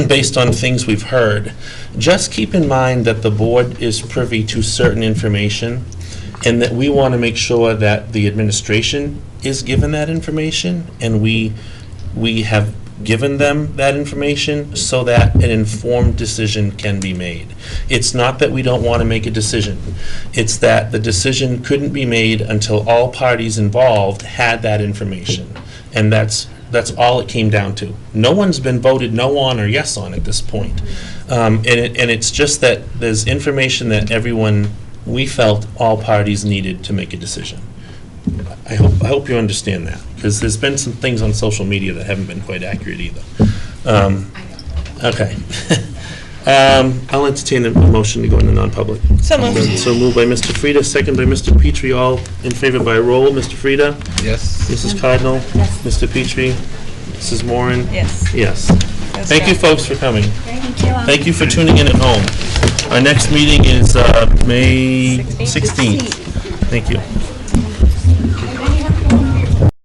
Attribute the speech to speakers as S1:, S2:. S1: based on things we've heard, just keep in mind that the board is privy to certain information, and that we want to make sure that the administration is given that information, and we, we have given them that information so that an informed decision can be made. It's not that we don't want to make a decision. It's that the decision couldn't be made until all parties involved had that information. And that's, that's all it came down to. No one's been voted no on or yes on at this point. Um, And it, and it's just that there's information that everyone, we felt all parties needed to make a decision. I hope, I hope you understand that, because there's been some things on social media that haven't been quite accurate either. Um, Okay. Um, I'll entertain a motion to go into non-public.
S2: So moved.
S1: So moved by Mr. Frida, second by Mr. Petrie, all in favor by roll. Mr. Frida?
S3: Yes.
S1: Mrs. Cardinal? Mr. Petrie? Mrs. Moran?
S2: Yes.
S1: Yes. Thank you, folks, for coming.
S4: Thank you.
S1: Thank you for tuning in at home. Our next meeting is uh, May 16th. Thank you.